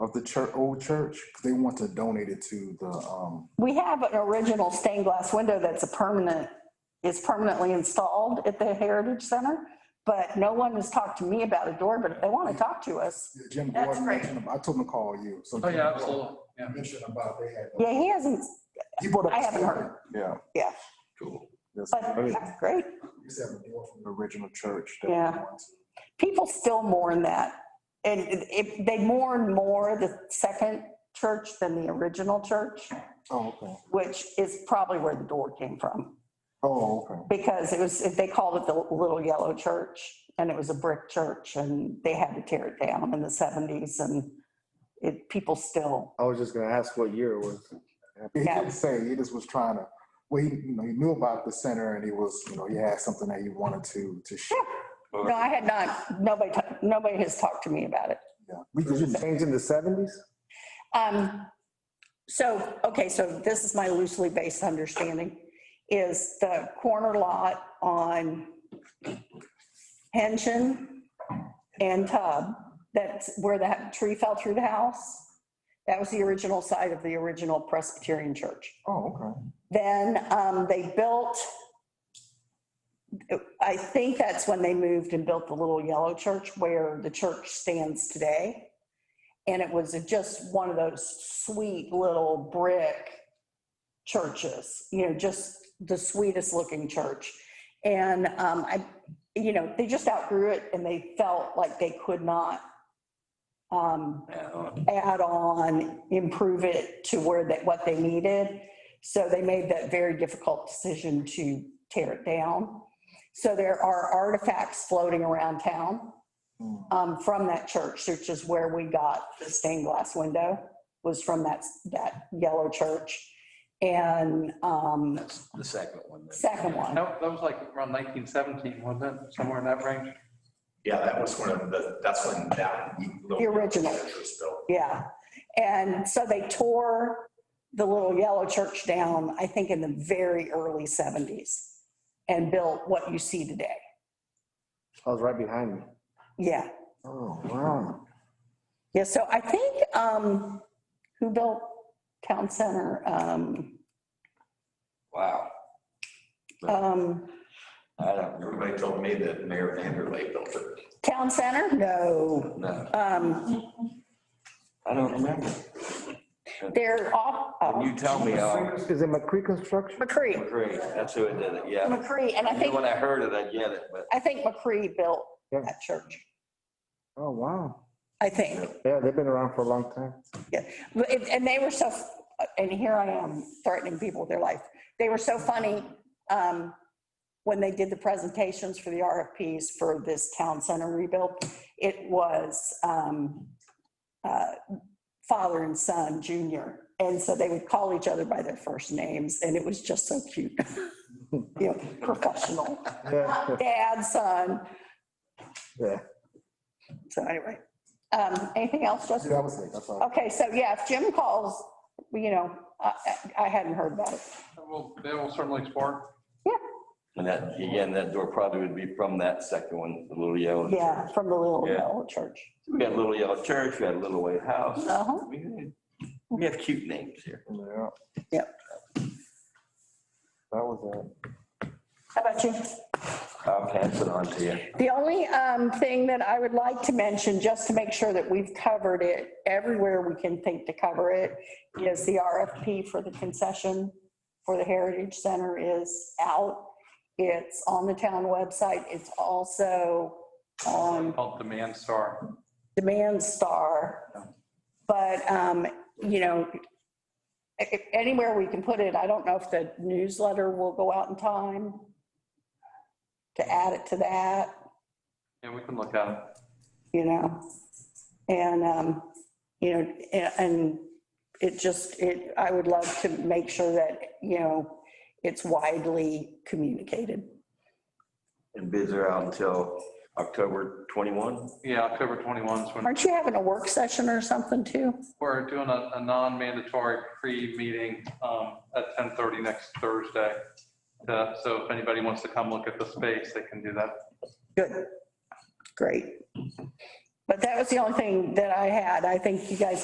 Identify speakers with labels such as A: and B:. A: of the church, old church. They want to donate it to the, um,
B: We have an original stained glass window that's a permanent, is permanently installed at the Heritage Center, but no one has talked to me about a door, but if they want to talk to us.
A: Jim
B: That's
A: Gordon
B: great.
A: mentioned, I told him to call you. So
C: Oh,
A: Jim
C: yeah,
A: Gordon
C: absolutely. Yeah.
A: Mentioned about they had.
B: Yeah, he hasn't,
A: He brought up.
B: I haven't heard.
A: Yeah.
B: Yeah.
A: Cool. Yes.
B: but that's great.
A: He used to have a door from the original church. that
B: Yeah.
A: we went to.
B: People still mourn that. And if they mourn more the second church than the original church,
A: Oh, okay.
B: which is probably where the door came from.
A: Oh, okay.
B: because it was, they called it the Little Yellow Church, and it was a brick church, and they had to tear it down in the seventies, and it, people still,
D: I was just gonna ask what year it was.
A: He
B: Yeah.
A: didn't say, he just was trying to, well, he, you know, he knew about the center and he was, you know, he had something that he wanted to, to share.
B: no, I had not, nobody, ta- nobody has talked to me about it.
A: Yeah. We
D: Was
A: just,
D: it changed in the seventies?
B: Um, so, okay, so this is my loosely based understanding, is the corner lot on Henshin and Tub, that's where that tree fell through the house. That was the original site of the original Presbyterian church.
A: oh, okay.
B: Then um, they built, I think that's when they moved and built the little yellow church where the church stands today. And it was just one of those sweet little brick churches, you know, just the sweetest looking church. And um, I, you know, they just outgrew it and they felt like they could not um, add on, improve it to where that, what they needed. So they made that very difficult decision to tear it down. So there are artifacts floating around town
A: Hmm.
B: um, from that church, which is where we got the stained glass window, was from that, that yellow church. And um,
E: That's the second one. then.
B: second one,
C: That that was like around 1917, wasn't it? Somewhere in that range.
F: Yeah, that was one of the, that's when that. little
B: The original.
F: church was built.
B: yeah. And so they tore the little yellow church down, I think in the very early 70s and built what you see today.
D: I was right behind me.
B: Yeah.
D: Oh, wow.
B: Yeah, so I think, um, who built Town Center? Um,
E: Wow.
B: um,
E: I don't remember.
F: Everybody told me that Mayor Vanderlay built it.
B: Town Center? No.
E: No,
B: Um,
E: I don't remember.
B: they're off,
E: When
B: oh,
E: you tell me, I'll
D: Is it McCree Construction?
B: McCree,
E: agree. That's who it did it, yeah.
B: McCree, and I think,
E: When I heard it, I get it, but
B: I think McCree built
D: Yeah.
B: that church,
D: Oh, wow.
B: I think.
D: Yeah, they've been around for a long time.
B: But it- And they were so, and here I am threatening people with their life. They were so funny um, when they did the presentations for the RFPs for this town center rebuild. It was um, uh, father and son, junior. And so they would call each other by their first names and it was just so cute. You know, professional.
D: Yeah,
B: Dad, son.
D: yeah.
B: So anyway, um, anything else, Justin?
A: That was it, that's all.
B: Okay, so yeah, if Jim calls, you know, I, I I hadn't heard about it.
C: Well, they will certainly explore.
E: and that, again, that door probably would be from that second one, the little yellow.
B: Yeah,
E: church.
B: from the little,
E: Yeah.
B: little church.
E: We had a little yellow church, we had a little white house.
B: Uh-huh.
E: We we have cute names here.
A: Yeah.
B: Yep.
A: That
D: uh,
A: was it.
B: How about you?
E: I'll pass it on to you.
B: The only um, thing that I would like to mention, just to make sure that we've covered it everywhere we can think to cover it, is the RFP for the concession for the Heritage Center is out. It's on the town website. It's also on
C: Called Demand Star.
B: demand star. But, um, you know, i- i- anywhere we can put it, I don't know if the newsletter will go out in time to add it to that,
C: Yeah, we can look at it.
B: you know? And, um, you know, a- and it just, it, I would love to make sure that, you know, it's widely communicated.
E: And bids are out until October 21.
C: Yeah, October 21 is when
B: Aren't you having a work session or something too?
C: we're doing a, a non-mandatory pre-meeting um, at 10:30 next Thursday. Uh, So if anybody wants to come look at the space, they can do that.
B: Good, great. But that was the only thing that I had. I think you guys